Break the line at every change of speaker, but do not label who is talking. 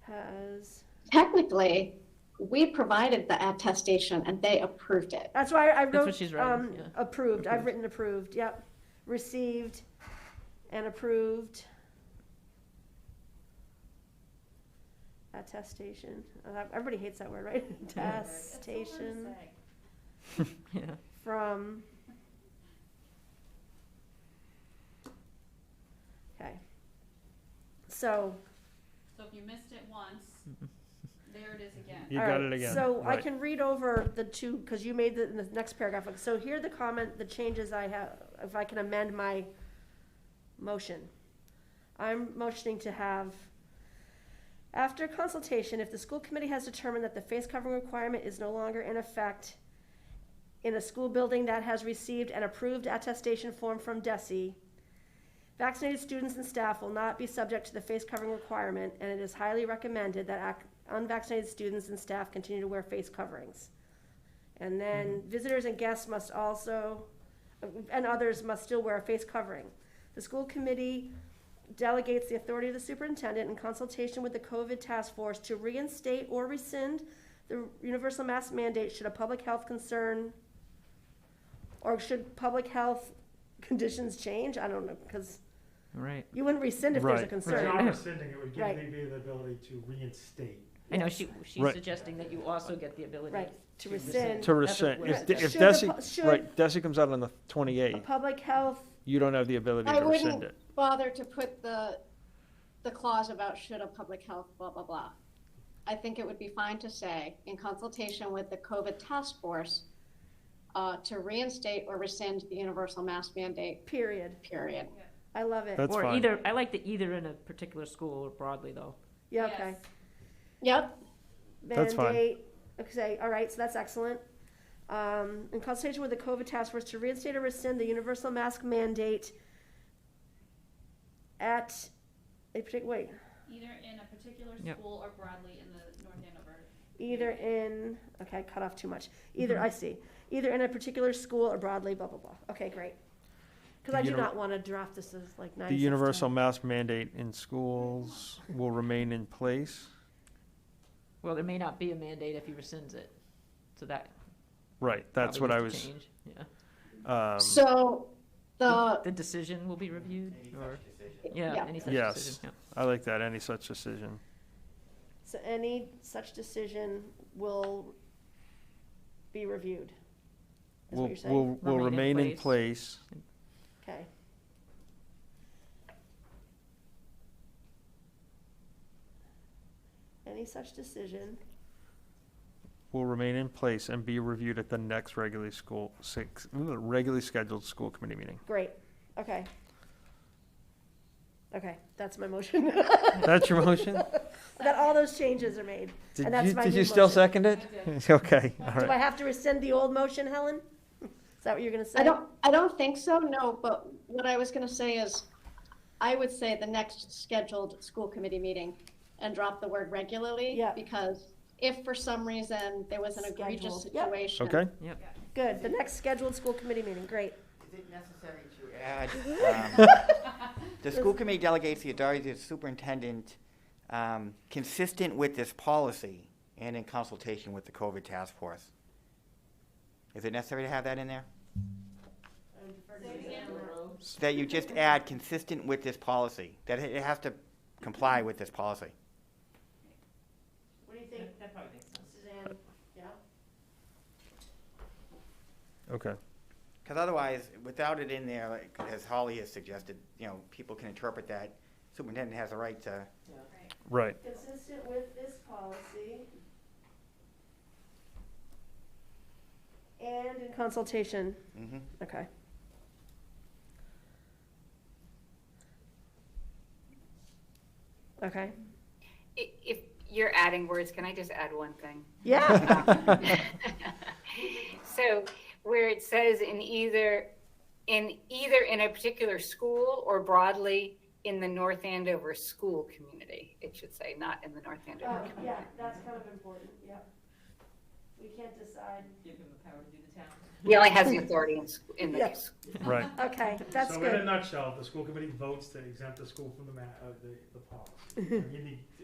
has,
Technically, we provided the attestation and they approved it.
that's why I
what
wrote,
she's writing,
um,
yeah.
approved, I've written approved, yep. Received and approved. Attestation, Uh, everybody hates that word, right? Attestation.
Yeah.
from. Okay. So.
So if you missed it once, there it is again.
You
all
got
right,
it again.
So I
Right.
can read over the two, because you made the, in the next paragraph, like, so here are the comment, the changes I have, if I can amend my motion. I'm motioning to have, after consultation, if the school committee has determined that the face covering requirement is no longer in effect in a school building that has received an approved attestation form from DESI, Vaccinated students and staff will not be subject to the face covering requirement, and it is highly recommended that ac- unvaccinated students and staff continue to wear face coverings. And then visitors and guests must also, and others must still wear a face covering. The school committee delegates the authority of the superintendent in consultation with the COVID task force to reinstate or rescind the universal mask mandate should a public health concern or should public health conditions change? I don't know, because
Right.
you wouldn't rescind if there's a
Right.
It's
concern.
not rescinding, it would give
Right.
DB the ability to reinstate.
I know she, she's
Right.
suggesting that you also get the ability.
Right, to
To
rescind.
rescind.
To rescind,
That's
if,
what-
if
Should the pu-
Desi,
should-
right, Desi comes out on the
A
twenty-eighth,
public health,
you don't have the ability
I
to rescind
wouldn't
it.
bother to put the, the clause about should a public health, blah, blah, blah. I think it would be fine to say, in consultation with the COVID task force, uh, to reinstate or rescind the universal mask mandate,
period.
period.
I love it.
That's
Or
fine.
either, I like the either in a particular school or broadly though.
Yeah, okay.
Yes.
Yep,
That's fine.
Mandate, okay, all right, so that's excellent. Um, in consultation with the COVID task force to reinstate or rescind the universal mask mandate at a particular, wait,
Either in a particular
Yep.
school or broadly in the North Andover.
either in, okay, I cut off too much. Either,
Mm-hmm.
I see, either in a particular school or broadly, blah, blah, blah. Okay, great. Because
The
I do
univer-
not want to draft this as like nine.
The
six,
universal
10.
mask mandate in schools will remain in place,
Well, there may not be a mandate if he rescinds it. So that.
right, that's what
probably
I
needs
was,
to change. Yeah.
um,
so the,
The decision will be reviewed or, yeah,
Yeah.
any such
Yes.
decision. yeah.
I like that, any such decision.
So any such decision will be reviewed, is what
Will,
you're saying?
will, will
Remain in
remain in
place.
place,
Okay. Any such decision
will remain in place and be reviewed at the next regularly school, six, regularly scheduled school committee meeting.
Great, okay. Okay, that's my motion.
That's your motion?
That all those changes are made.
Did
And that's
you,
my
did you
new
still
motion.
second it? Okay, all
Do I
right.
have to rescind the old motion, Helen? Is that what you're gonna say?
I don't, I don't think so, no, but what I was gonna say is, I would say the next scheduled school committee meeting and drop the word regularly.
Yeah.
Because if for some reason there was an egregious
Scheduled, yep.
situation.
Okay,
Good, the next scheduled school committee meeting, great.
Is it necessary to add, um, the school committee delegates the authority to the superintendent, um, consistent with this policy and in consultation with the COVID task force? Is it necessary to have that in there? That you just add consistent with this policy, that it it has to comply with this policy?
What do you think? That probably makes sense. Suzanne, yeah?
okay.
Because otherwise, without it in there, like, as Holly has suggested, you know, people can interpret that superintendent has a right to
Right.
Consistent with this policy. And in consultation,
Mhm.
okay. Okay,
I- If you're adding words, can I just add one thing?
yeah,
So where it says in either, in either in a particular school or broadly in the North Andover school community, it should say, not in the North Andover
oh,
community.
yeah, that's kind of important, yeah. We can't decide.
He only has the authority in, sch- in the
Yeah.
school.
Right.
Okay, that's
So
good.
in a nutshell, the school committee votes to exempt the school from the ma, uh, the, the policy. And You need,